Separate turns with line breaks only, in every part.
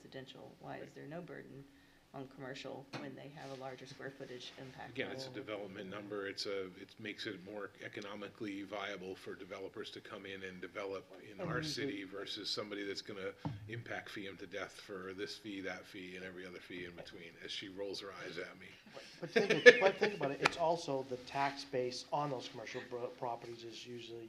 residential? Why is there no burden on commercial when they have a larger square footage impact?
Again, it's a
level?
development number, it's a, it makes it more economically viable for developers to come in and develop in our city versus somebody that's gonna impact fee him to death for this fee, that fee, and every other fee in between, as she rolls her eyes at me.
But think, but think about it, it's also the tax base on those commercial bro- properties is usually,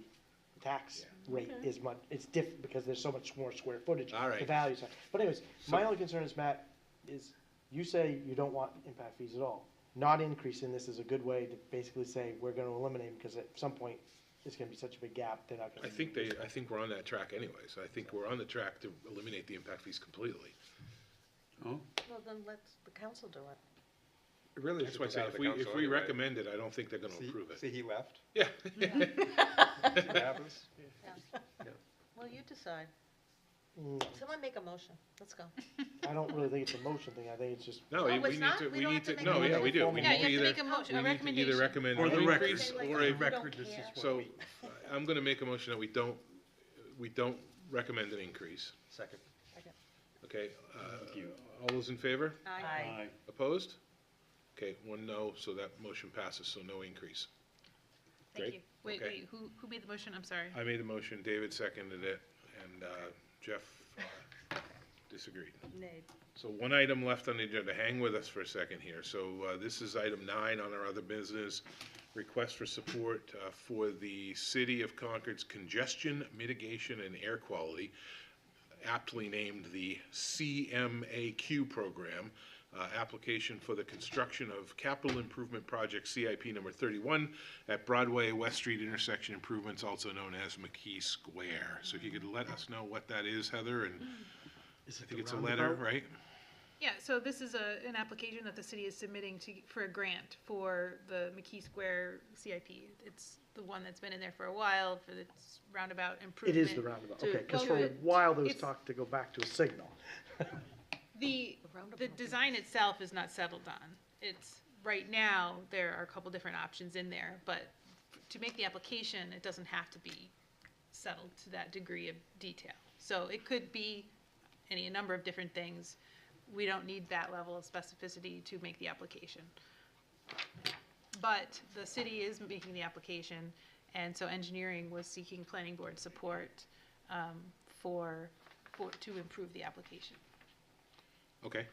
the tax rate is much, it's different because there's so much more square footage.
All right.
The values, are- but anyways, my
So-
only concern is, Matt, is you say you don't want impact fees at all. Not increasing this is a good way to basically say, we're gonna eliminate them, because at some point, it's gonna be such a big gap, they're not gonna.
I think they, I think we're on that track anyways, I think we're on the track to eliminate the impact fees completely.
Well, then let the council do it.
It really
That's
should
why I
come
say,
out of
if
the
we,
council
if we
anyway.
recommend it, I don't think they're gonna
See-
approve it.
See, he left.
Yeah.
See what happens?
Well, you decide.
Mm,
Someone make a motion. Let's go.
I don't really think it's a motion thing, I think it's just,
No,
Oh,
we
it's
we need
not?
to,
We
we need
don't have to
to,
make
no,
a
yeah, we do,
formal
we
Yeah,
need to
you have
either,
to make a motion,
we
a
need to either
recommendation.
recommend
Or
an
the record.
increase or a
You don't
record, this is
care.
what
So,
we-
I'm gonna make a motion that we don't, we don't recommend an increase,
Second.
okay? Uh, All those in favor?
Aye.
Opposed? Okay, one no, so that motion passes, so no increase.
Thank
Great.
you. Uh, Wait,
Okay.
wait, who, who made the motion? I'm sorry.
I made the motion, David seconded it, and uh, Jeff uh, disagreed.
Nay.
So one item left on the agenda, hang with us for a second here. So uh, this is item nine on our other business, request for support uh, for the City of Concord's Congestion Mitigation and Air Quality, aptly named the CMAQ program, uh, application for the construction of capital improvement project CIP number 31 at Broadway, West Street intersection improvements, also known as McKee Square. So if you could let us know what that is, Heather, and I think it's a letter, right?
Yeah, so this is a, an application that the city is submitting to, for a grant for the McKee Square CIP. It's the one that's been in there for a while, for the roundabout
it
improvement.
is the roundabout,
to-
okay, because
to-
for a while there was
it's-
talk to go back to a signal.
The, the design itself is not settled on. It's, right now, there are a couple different options in there, but to make the application, it doesn't have to be settled to that degree of detail. So it could be any, a number of different things. We don't need that level of specificity to make the application. But the city is making the application, and so engineering was seeking planning board support, um, for, for, to improve the application.
Okay.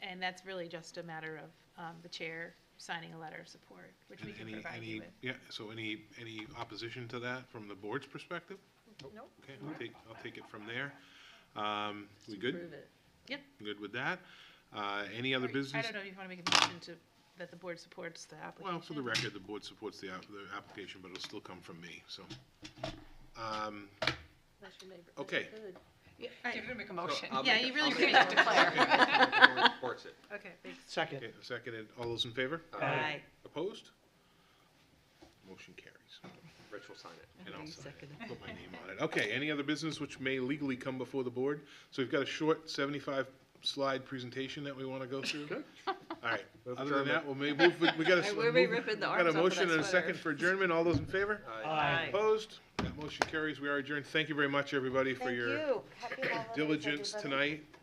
And that's really just a matter of um, the chair signing a letter of support, which we
And
can
Any,
provide you
any,
with.
yeah, so any, any opposition to that from the board's perspective?
Nope.
Okay, I'll take, I'll take it from there. Um, we good?
Approve it.
Good with that? Uh, any other
Or you- I
business?
don't know if you want to make a motion to, that the board supports the application.
Well, for the record, the board supports the, app- the application, but it'll still come from me, so. Um,
That's your neighbor.
Okay.
Good.
Yeah, all right.
make a motion.
I'll
Yeah,
make
you
a-
really
I'll
should
make
make
a
that
motion. The board Supports it. uh,
Okay, thanks.
Second.
okay, seconded, all those in favor?
Aye.
Opposed? Motion carries.
Rich will sign it.
And I'll
You
sign
second
it, put my name on it. Okay, any other business which may legally come before the board? So we've got a short seventy-five slide presentation that we wanna go through. All right,
Move
other than
adjournment.
that, we'll may move, we got a.
I will be
move-
ripping the
we got
arms
a
off of
motion
that
and a
sweater.
second for adjournment, all those in favor?
Aye.
Opposed? That motion carries, we are adjourned. Thank you very much, everybody, for
Thank
your
you. Happy holidays,
diligence
everybody.
tonight.